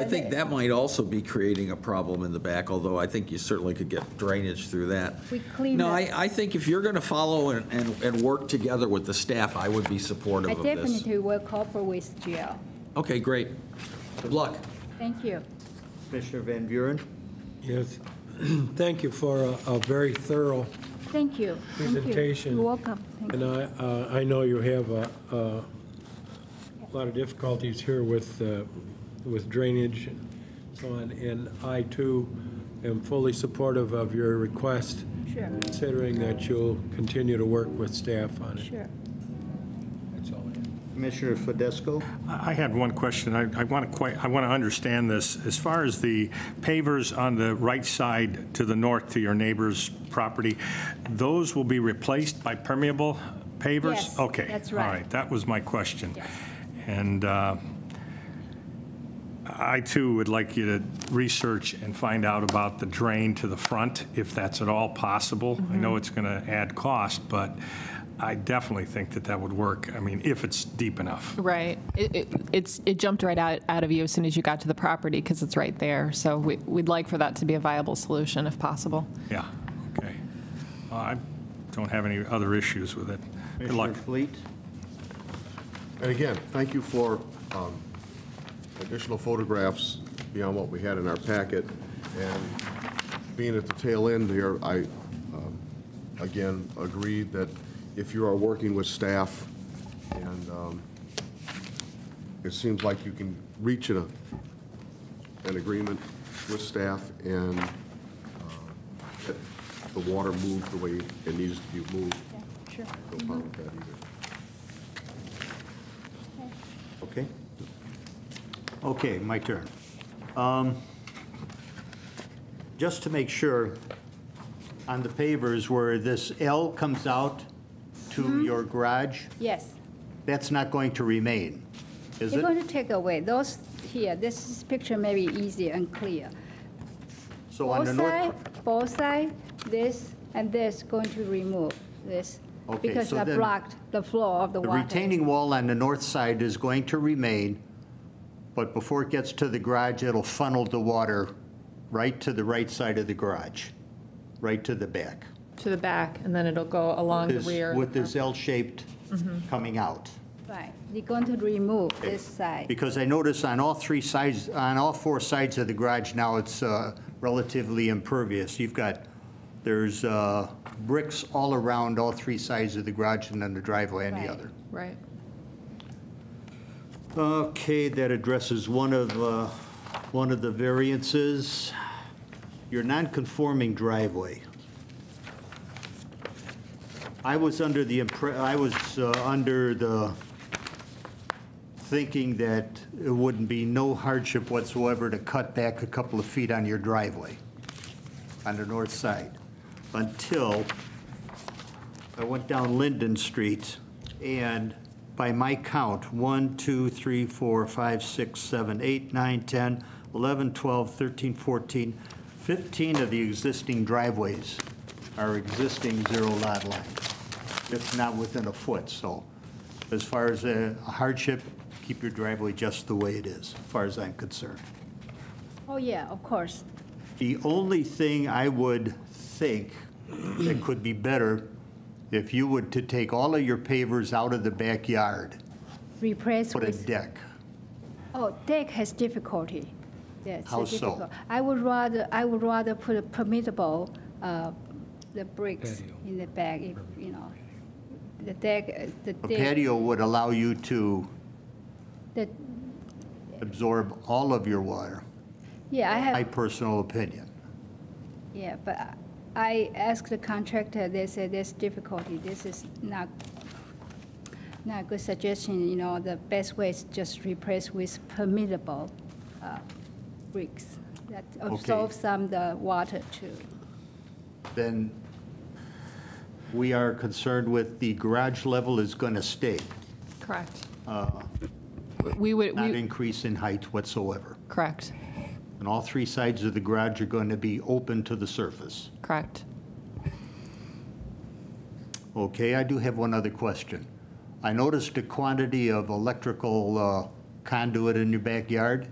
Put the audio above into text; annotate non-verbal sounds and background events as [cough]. I think that might also be creating a problem in the back, although I think you certainly could get drainage through that. We cleaned No, up- I, I think if you're going to follow and, and, and work together with the staff, I would be supportive I of this. definitely will cooperate with GL. Okay, great. Good luck. Thank you. Commissioner Van Buren? Yes, [clears throat] thank you for a- a very thorough, Thank you. Thank you. Presentation. You're welcome. Thank and you. I, uh, I know you have a, a lot of difficulties here with, uh, with drainage and so on, and I too am fully supportive of your request. Sure. Considering that you'll continue to work with staff on it. Sure. That's all I have. Commissioner Fidesco? I I had one question. I want to, I want to understand this. As far as the pavers on the right side to the north to your neighbor's property, those will be replaced by permeable pavers? Yes, Okay. that's All right. right, that was my question. Yes. And uh, I too would like you to research and find out about the drain to the front, if that's at all possible. I Mm-hmm. know it's going to add cost, but I definitely think that that would work. I mean, if it's deep enough. Right. It, it, it's, it jumped right out, out of you as soon as you got to the property because it's right there. So we, we'd like for that to be a viable solution if possible. Yeah, okay. Uh, I don't have any other issues with it. Good luck. Commissioner Fleet? And again, thank you for um, additional photographs beyond what we had in our packet. And being at the tail end here, I, um, again, agree that if you are working with staff, and um, it seems like you can reach an, an agreement with staff and uh, get the water moved the way it needs to be moved. Sure. No problem with that either. Okay. Okay, my turn. Um, Just to make sure, on the pavers where this L comes out Mm-hmm. to your garage, Yes. that's not going to remain, is You're it? going to take away those here. This is picture may be easy and clear. So on Both the north. side, both side, this and this going to remove this. Okay, Because so I then- blocked the flow of the The water. retaining wall on the north side is going to remain, but before it gets to the garage, it'll funnel the water right to the right side of the garage, right to the back. To the back, and then it'll go along the This- rear. Uh-huh. Mm-hmm. With this L-shaped coming out. Right. You're going to remove this side. Because I notice on all three sides, on all four sides of the garage now, it's uh, relatively impervious. You've got, there's uh, bricks all around all three sides of the garage and then the driveway on Right. the other. Right. Okay, that addresses one of, uh, one of the variances. Your non-conforming driveway. I was under the, impre- I was uh, under the thinking that it wouldn't be no hardship whatsoever to cut back a couple of feet on your driveway on the north side, until I went down Linden Street, and by my count, 1, 2, 3, 4, 5, 6, 7, 8, 9, 10, 11, 12, 13, 14, 15 of the existing driveways are existing zero lot lines. It's not within a foot, so as far as a hardship, keep your driveway just the way it is, as far as I'm concerned. Oh, yeah, of course. The only thing I would think that could be better, if you would to take all of your pavers out of the backyard, Replace put a with deck. Oh, deck has difficulty. Yes. How so? I would rather, I would rather put a permittable, uh, the bricks in the back, if, you know. The deck, uh, the A deck. patio would allow you to the- absorb all of your water, Yeah, I my have, personal opinion. yeah, but I- I asked the contractor, they said there's difficulty, this is not, not a good suggestion, you know, the best way is just replace with permittable, uh, bricks that absorb some the water too. Then we are concerned with the garage level is going to stay, Correct. Uh, We would, not we, increase in height whatsoever. correct, And all three sides of the garage are going to be open to the surface. correct. Okay, I do have one other question. I noticed the quantity of electrical uh, conduit in your backyard.